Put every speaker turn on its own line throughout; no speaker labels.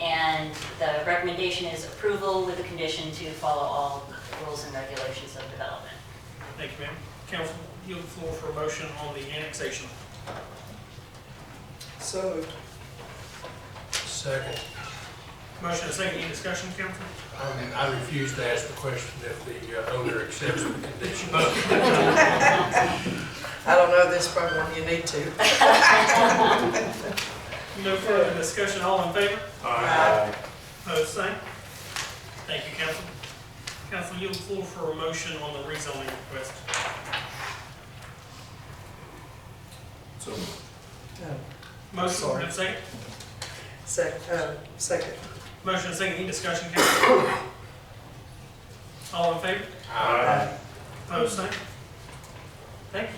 And the recommendation is approval with the condition to follow all rules and regulations of development.
Thank you, ma'am. Council, yield the floor for a motion on the annexation.
So moved.
Second,
Motion and second, any discussion, council?
I mean, I refuse to ask the question if the uh, owner accepts the condition.
I don't know this from one, you need to.
No further discussion, all in favor?
Aye.
Opposed, same. Thank you, council. Council, yield the floor for a motion on the rezoning request.
Um,
Motion
Sorry.
and second.
Sec, um, second.
Motion and second, any discussion, council? All in favor?
Aye.
Opposed, same. Thank you.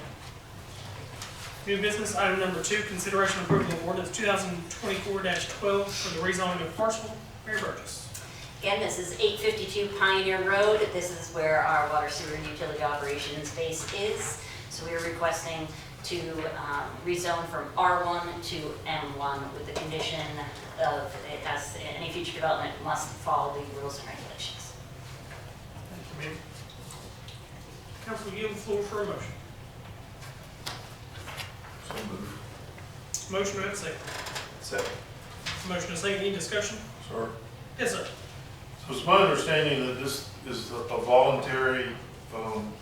New business, item number two, consideration approval of ordinance two thousand twenty-four twelve for the rezoning of parcel. Mary Burgess.
Again, this is 852 Pioneer Road. This is where our water sewer and utility operations base is. So we are requesting to um, rezone from R1 to M1 with the condition of it has, any future development must follow the rules and regulations.
Thank you, ma'am. Council, yield the floor for a motion. Motion, do I have a second?
Second.
Motion and second, any discussion?
Sir.
Yes, sir.
So it's my understanding that this is a voluntary, um,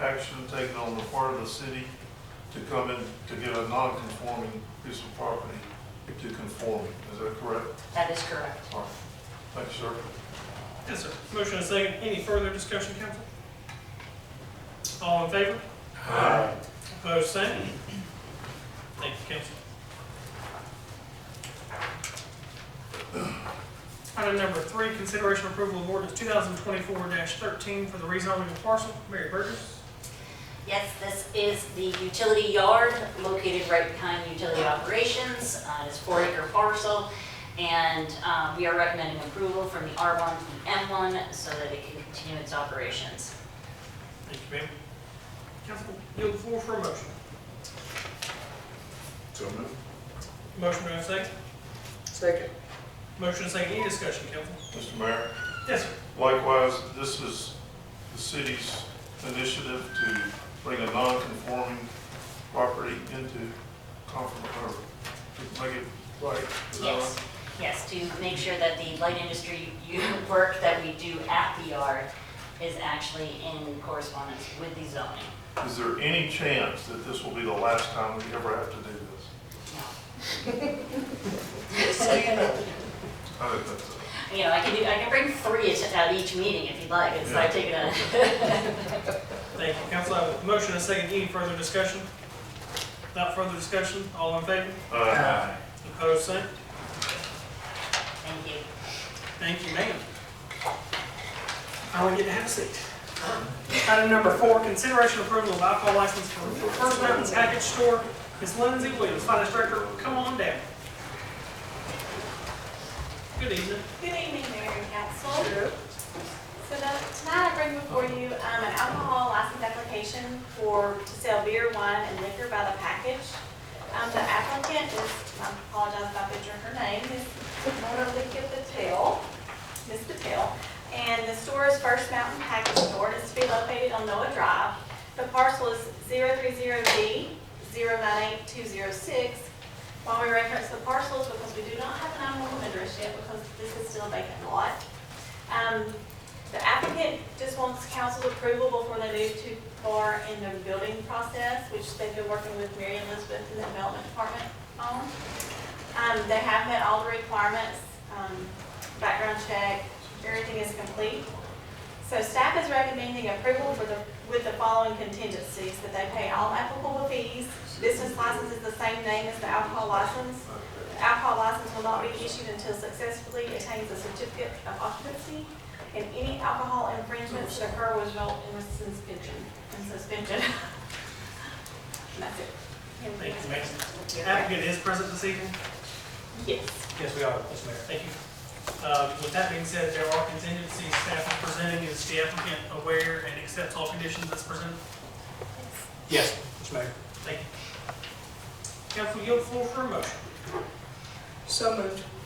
action taken on the part of the city to come in to get a non-conforming piece of property to conform. Is that correct?
That is correct.
All right. Thank you, sir.
Yes, sir. Motion and second, any further discussion, council? All in favor?
Aye.
Opposed, same. Thank you, council. Item number three, consideration approval of ordinance two thousand twenty-four thirteen for the rezoning of parcel. Mary Burgess.
Yes, this is the utility yard located right behind utility operations. Uh, It's four acre parcel. And uh, we are recommending approval from the R1 to the M1 so that it can continue its operations.
Thank you, ma'am. Council, yield the floor for a motion.
So moved.
Motion, do I have a second?
Second.
Motion, second, any discussion, council?
Mr. Mayor,
Yes, sir.
likewise, this is the city's initiative to bring a non-conforming property into conform, or make it right. Is that
Yes, yes, to make sure that the light industry u- work that we do at the yard is actually in correspondence with the zoning.
right? Is there any chance that this will be the last time we ever have to do this?
No.
I don't think so.
You know, I can do, I can bring three at- at each meeting if you'd like. It's like taking a,
Thank you, council. I have a motion, a second, any further discussion? Without further discussion, all in favor?
Aye.
Opposed, same.
thank you.
Thank you, ma'am. I want you to have a seat. Item number four, consideration approval of alcohol license for First Mountain Package Store. Ms. Lindsay Williams, Finance Director, come on down. Good evening.
Good evening, Mayor and Council. So the- tonight I bring before you um, an alcohol license application for, to sell beer, wine, and liquor by the package. Um, The applicant is, I apologize if I butcher her name, is Monalika Patel, Ms. Patel. And the store is First Mountain Package Store, and it's to be located on Noah Drive. The parcel is 030B098206, why we reference the parcels, because we do not have an 911 address yet, because this is still a vacant lot. Um, The applicant just wants council's approval before they move too far in the building process, which they've been working with Mary Elizabeth in the development department on. Um, They have met all the requirements, um, background check, everything is complete. So staff is recommending approval for the, with the following contingencies, that they pay all applicable fees. Business license is the same name as the alcohol license. The Alcohol license will not be issued until successfully attains a certificate of occupancy, and any alcohol infringements that occur will result in suspension, in suspension. And That's it.
Thank you, ma'am. Applicant is present this evening?
Yes.
Yes, we are, Mr. Mayor. Thank you. Uh, With that being said, there are contingencies staff is presenting. Is the applicant aware and accepts all conditions that's presented?
Yes, Mr. Mayor.
Thank you. Council, yield the floor for a motion.
So moved.